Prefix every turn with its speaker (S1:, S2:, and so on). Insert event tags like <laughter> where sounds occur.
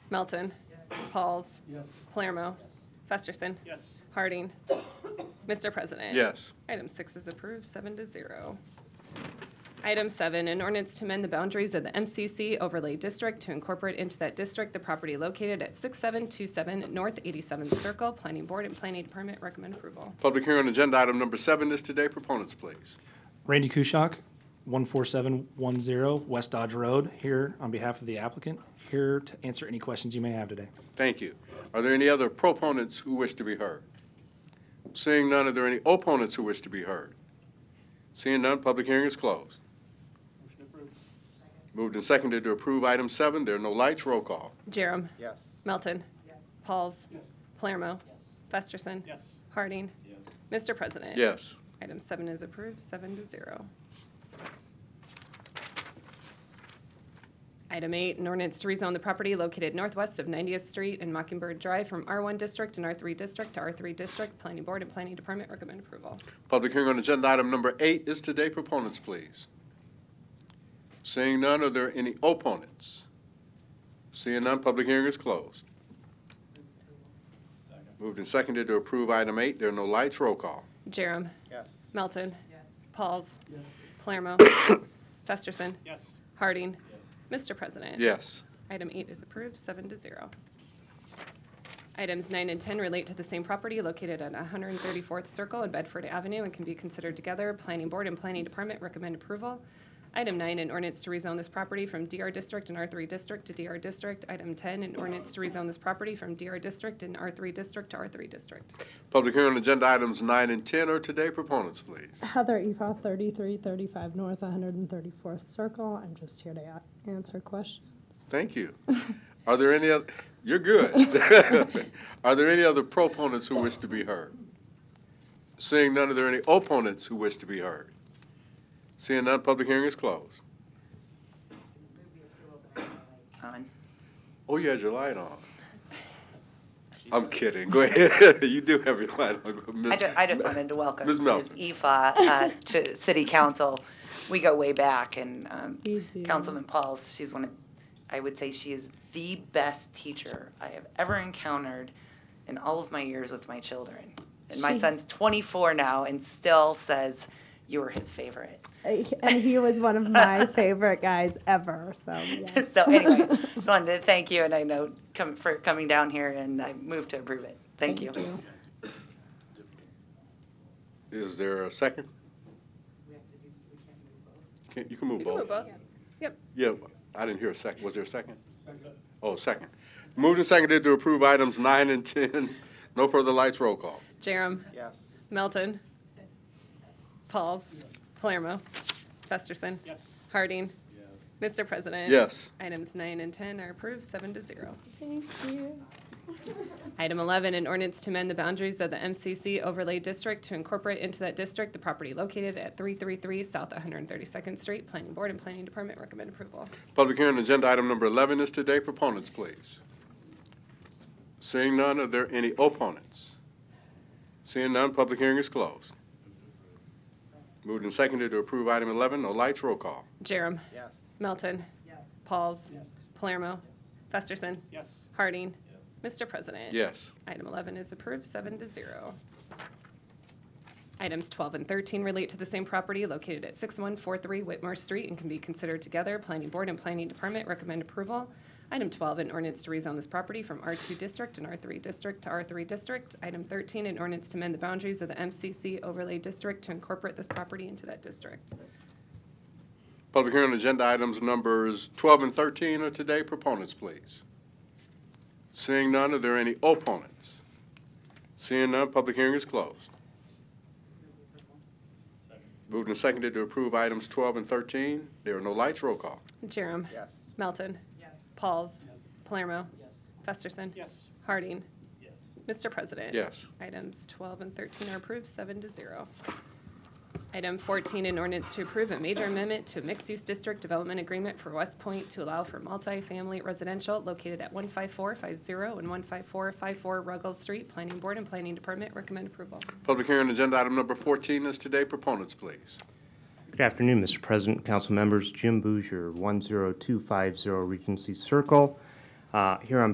S1: Melton. Pauls.
S2: Yes.
S1: Palermo. Festerson.
S2: Yes.
S1: Harding. <coughs> Mr. President.
S3: Yes.
S1: Item six is approved, seven to zero. Item seven, an ordinance to amend the boundaries of the MCC overlay district to incorporate into that district the property located at 6727 North 87th Circle. Planning Board and Planning Department recommend approval.
S3: Public hearing on agenda item number seven is today. Proponents, please.
S4: Randy Kuschak, 14710 West Dodge Road, here on behalf of the applicant, here to answer any questions you may have today.
S3: Thank you. Are there any other proponents who wish to be heard? Seeing none, are there any opponents who wish to be heard? Seeing none, public hearing is closed.
S2: Motion approved.
S3: Moved and seconded to approve item seven. There are no lights. Roll call.
S1: Jerem.
S5: Yes.
S1: Melton. Pauls.
S2: Yes.
S1: Palermo.
S5: Yes.
S1: Festerson.
S2: Yes.
S1: Harding.
S5: Yes.
S1: Mr. President.
S3: Yes.
S1: Item seven is approved, seven to zero. Item eight, an ordinance to rezone the property located northwest of 90th Street and Mockingbird Drive from R1 District and R3 District to R3 District. Planning Board and Planning Department recommend approval.
S3: Public hearing on agenda item number eight is today. Proponents, please. Seeing none, are there any opponents? Seeing none, public hearing is closed. Moved and seconded to approve item eight. There are no lights. Roll call.
S1: Jerem.
S5: Yes.
S1: Melton. Pauls.
S2: Yes.
S1: Palermo. Festerson.
S2: Yes.
S1: Harding. Mr. President.
S3: Yes.
S1: Item eight is approved, seven to zero. Items nine and 10 relate to the same property located at 134th Circle and Bedford Avenue and can be considered together. Planning Board and Planning Department recommend approval. Item nine, an ordinance to rezone this property from DR District and R3 District to DR District. Item 10, an ordinance to rezone this property from DR District and R3 District to R3 District.
S3: Public hearing on agenda items nine and 10 are today. Proponents, please.
S6: Heather Eval, 3335 North 134th Circle. I'm just here to a- answer questions.
S3: Thank you. <laughs> Are there any, oth- you're good. <laughs> Are there any other proponents who wish to be heard? Seeing none, are there any opponents who wish to be heard? Seeing none, public hearing is closed.
S5: On.
S3: Oh, you had your light on. I'm kidding. Go ahead. <laughs> You do have your light on.
S7: I just, I just wanted to welcome
S3: Ms.
S7: Ms.
S3: Melvin.
S7: Aoife uh, to City Council. We go way back, and um,
S6: We do.
S7: Councilman Pauls, she's one of, I would say she is the best teacher I have ever encountered in all of my years with my children. And my
S6: She-
S7: son's 24 now and still says you were his favorite.
S6: Uh, <laughs> And he was one of my favorite guys ever, so yes.
S7: <laughs> So
S6: <laughs>
S7: anyway, just wanted to thank you, and I know, come- for coming down here, and I move to approve it. Thank you.
S3: Is there a second? Can- You can move
S1: You can
S3: both.
S1: move both.
S3: Yeah, I didn't hear a second. Was there a second? Oh, second. Moved and seconded to approve items nine and 10. No further lights, roll call.
S1: Jerem.
S5: Yes.
S1: Melton. Pauls. Palermo. Festerson.
S2: Yes.
S1: Harding. Mr. President.
S3: Yes.
S1: Items nine and 10 are approved, seven to zero.
S6: Thank you.
S1: Item 11, an ordinance to amend the boundaries of the MCC overlay district to incorporate into that district the property located at 333 South 132nd Street. Planning Board and Planning Department recommend approval.
S3: Public hearing, agenda item number 11 is today. Proponents, please. Seeing none, are there any opponents? Seeing none, public hearing is closed. Moved and seconded to approve item 11. No lights, roll call.
S1: Jerem.
S5: Yes.
S1: Melton. Pauls. Palermo. Festerson.
S2: Yes.
S1: Harding. Mr. President.
S3: Yes.
S1: Item 11 is approved, seven to zero. Items 12 and 13 relate to the same property located at 6143 Whitmore Street and can be considered together. Planning Board and Planning Department recommend approval. Item 12, an ordinance to rezone this property from R2 District and R3 District to R3 District. Item 13, an ordinance to amend the boundaries of the MCC overlay district to incorporate this property into that district.
S3: Public hearing, agenda items numbers 12 and 13 are today. Proponents, please. Seeing none, are there any opponents? Seeing none, public hearing is closed. Moved and seconded to approve items 12 and 13. There are no lights. Roll call.
S1: Jerem.
S5: Yes.
S1: Melton. Pauls. Palermo. Festerson.
S2: Yes.
S1: Harding.
S2: Yes.
S1: Mr. President.
S3: Yes.
S1: Items 12 and 13 are approved, seven to zero. Item 14, an ordinance to approve a major amendment to a mixed-use district development agreement for West Point to allow for multifamily residential located at 15450 and 15454 Ruggles Street. Planning Board and Planning Department recommend approval.
S3: Public hearing, agenda item number 14 is today. Proponents, please.
S8: Good afternoon, Mr. President, council members. Jim Bouger, 10250 Regency Circle, uh, here on